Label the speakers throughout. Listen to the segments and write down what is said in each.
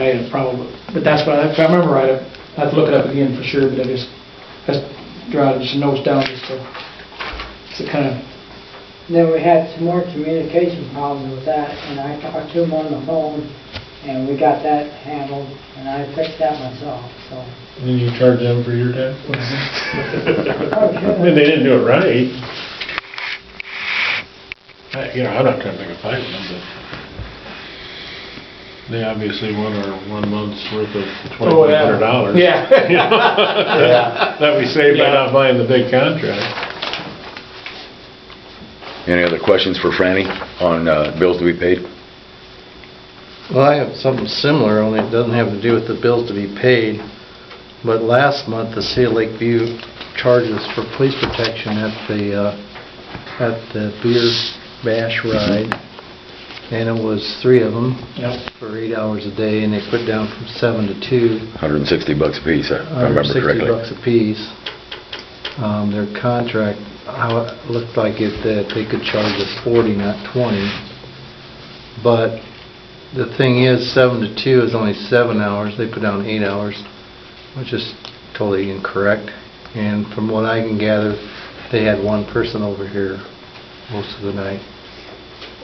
Speaker 1: I had a problem, but that's what, I- if I remember right, I- I'd look it up again for sure, but I just, that's, drive just notes down just to, to kind of,
Speaker 2: Then we had some more communication problems with that, and I talked to him on the phone, and we got that handled, and I fixed that myself, so.
Speaker 3: And then you charge them for your time?
Speaker 2: sure.
Speaker 3: I mean, they didn't do it right. I- You know, I'm not trying to pick a fight with them, but they obviously want our one month's worth of
Speaker 1: Oh,
Speaker 3: twenty-five
Speaker 1: yeah.
Speaker 3: hundred dollars.
Speaker 1: Yeah.
Speaker 3: That we saved by not buying the big contract.
Speaker 4: Any other questions for Franny on uh, bills to be paid?
Speaker 5: Well, I have something similar, only it doesn't have to do with the bills to be paid. But last month, the City of Lakeview charges for police protection at the, uh, at the beer bash ride. And it was three of them
Speaker 1: Yep.
Speaker 5: for eight hours a day, and they put down from seven to two.
Speaker 4: 160 bucks apiece, if I remember
Speaker 5: 160
Speaker 4: correctly.
Speaker 5: bucks apiece. Um, Their contract, how it looked like it, that they could charge us 40, not 20. But the thing is, 7 to 2 is only 7 hours, they put down 8 hours, which is totally incorrect. And from what I can gather, they had one person over here most of the night,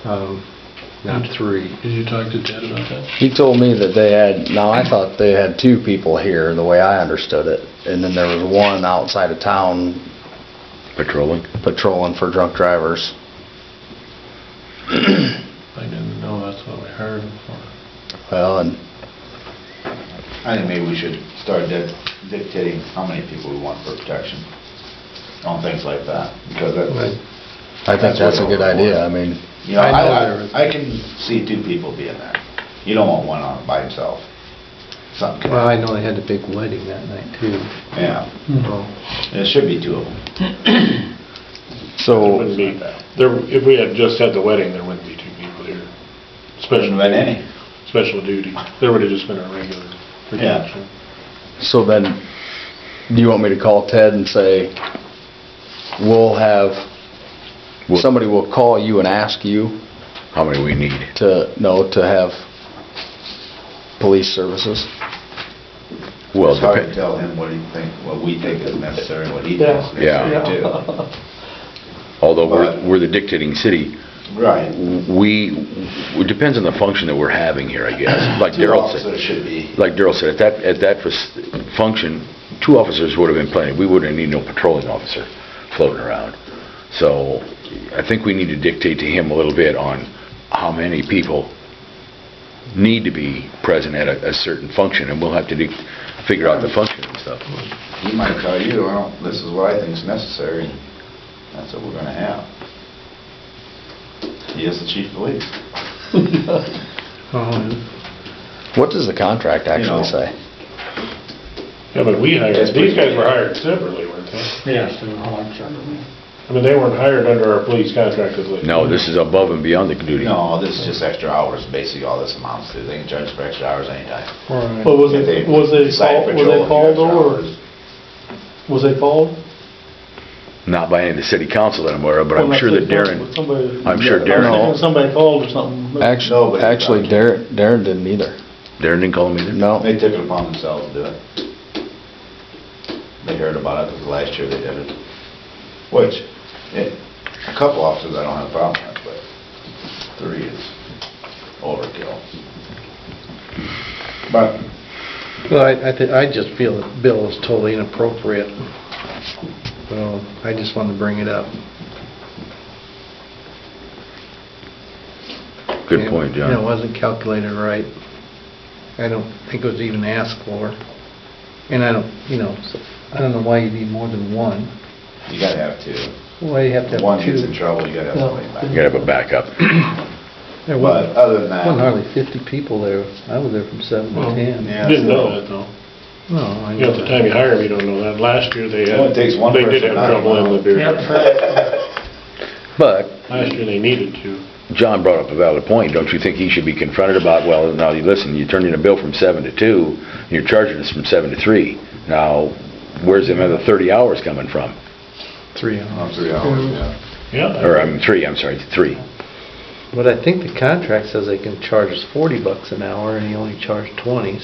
Speaker 5: Um, not three.
Speaker 3: Did you talk to Ted about that?
Speaker 6: He told me that they had, now I thought they had two people here, the way I understood it, and then there was one outside of town
Speaker 4: Patrolling?
Speaker 6: patrolling for drunk drivers.
Speaker 3: I didn't know that's what we hired him for.
Speaker 6: Well, and
Speaker 7: I think maybe we should start dic- dictating how many people we want for protection on things like that, because that's,
Speaker 6: I think that's a good idea, I mean,
Speaker 7: you know,
Speaker 5: I know
Speaker 7: I-
Speaker 5: there is.
Speaker 7: I, I can see two people being there. You don't want one on by himself. Something could
Speaker 5: Well, I know they had a big wedding that night, too.
Speaker 7: Yeah,
Speaker 5: So-
Speaker 7: it should be two of them.
Speaker 3: It
Speaker 6: so,
Speaker 3: wouldn't be, there, if we had just had the wedding, there wouldn't be two people here.
Speaker 7: Wouldn't
Speaker 3: Special
Speaker 7: have been
Speaker 3: duty.
Speaker 7: any.
Speaker 3: Special duty. There would have just been a regular protection.
Speaker 6: so then, do you want me to call Ted and say, we'll have,
Speaker 4: Well-
Speaker 6: somebody will call you and ask you
Speaker 4: How many we need?
Speaker 6: to, no, to have police services?
Speaker 4: Well,
Speaker 7: It's hard to
Speaker 4: depen-
Speaker 7: tell him what he think, what we think is necessary, what he thinks is
Speaker 4: Yeah.
Speaker 7: necessary
Speaker 4: although we're
Speaker 7: But-
Speaker 4: we're the dictating city,
Speaker 7: too. Right.
Speaker 4: we, it depends on the function that we're having here, I guess. Like
Speaker 7: Two
Speaker 4: Daryl
Speaker 7: officers
Speaker 4: said,
Speaker 7: should be.
Speaker 4: like Daryl said, at that, at that fas- function, two officers would have been plenty. We wouldn't need no patrolling officer floating around. So I think we need to dictate to him a little bit on how many people need to be present at a a certain function, and we'll have to dic- figure out the function and stuff.
Speaker 7: He might tell you, I don't, this is what I think is necessary, and that's what we're gonna have. He is the chief of police.
Speaker 5: Um,
Speaker 6: What does the contract
Speaker 7: know.
Speaker 6: actually say?
Speaker 3: Yeah, but we
Speaker 7: Yes,
Speaker 3: hired,
Speaker 7: we-
Speaker 3: these guys were hired separately, weren't they?
Speaker 1: Yeah, so I'll have trouble.
Speaker 3: I mean, they weren't hired under our police contract with Lakeview.
Speaker 4: No, this is above and beyond the duty.
Speaker 7: No, this is just extra hours, basically all this amounts to. They can charge for extra hours anytime.
Speaker 1: But was
Speaker 7: If
Speaker 1: it,
Speaker 7: they
Speaker 1: was it
Speaker 7: decide
Speaker 1: called,
Speaker 7: to
Speaker 1: was
Speaker 7: patrol
Speaker 1: it
Speaker 7: a few
Speaker 1: called
Speaker 7: extra
Speaker 1: or,
Speaker 7: hours.
Speaker 1: was it called?
Speaker 4: Not by any of the city council that I'm aware of, but
Speaker 1: Well,
Speaker 4: I'm sure
Speaker 1: that's
Speaker 4: that
Speaker 1: it,
Speaker 4: Darren,
Speaker 1: somebody-
Speaker 4: I'm sure Darren-
Speaker 1: I was thinking Somebody called or something. but-
Speaker 7: No, but
Speaker 6: Actually,
Speaker 7: it's
Speaker 6: actually
Speaker 7: not.
Speaker 6: Darren, Darren didn't either.
Speaker 4: Darren didn't call him either?
Speaker 6: No.
Speaker 7: They took it upon themselves to do it. They heard about it, because last year they did it. Which, eh, a couple officers I don't have a problem with, but three is overkill. But
Speaker 5: Well, I, I thi- I just feel the bill is totally inappropriate. So I just wanted to bring it up.
Speaker 4: Good point,
Speaker 5: You know, It
Speaker 4: John.
Speaker 5: wasn't calculated right. I don't think it was even asked for. And I don't, you know, so I don't know why you need more than one.
Speaker 7: you gotta have two.
Speaker 5: Why you have to
Speaker 7: If one
Speaker 5: have
Speaker 7: gets in
Speaker 5: two?
Speaker 7: trouble, you gotta have somebody
Speaker 4: You
Speaker 7: back.
Speaker 4: gotta have a backup.
Speaker 5: There
Speaker 7: But
Speaker 5: wasn't
Speaker 7: other than
Speaker 5: wasn't
Speaker 7: that,
Speaker 5: hardly 50 people there. I was there from 7 to
Speaker 3: Well,
Speaker 5: 10.
Speaker 7: yeah,
Speaker 3: Didn't know
Speaker 7: so-
Speaker 3: that, though.
Speaker 5: No, I
Speaker 3: You know,
Speaker 5: know
Speaker 3: at the
Speaker 5: that.
Speaker 3: time you hire them, you don't know that. Last year, they had,
Speaker 7: Only takes one
Speaker 3: they did
Speaker 7: person,
Speaker 3: have
Speaker 7: not
Speaker 3: trouble in the
Speaker 7: one.
Speaker 3: beer.
Speaker 4: But
Speaker 3: Last year, they needed to.
Speaker 4: John brought up a valid point. Don't you think he should be confronted about, well, now, you listen, you turned in a bill from seven to two, and you're charging us from seven to three. Now, where's the other thirty hours coming from?
Speaker 5: Three
Speaker 7: Oh,
Speaker 5: hours.
Speaker 7: three hours, yeah.
Speaker 3: Yeah.
Speaker 4: Or, I'm, three, I'm sorry, three.
Speaker 5: But I think the contract says they can charge us 40 bucks an hour and he only charged 20,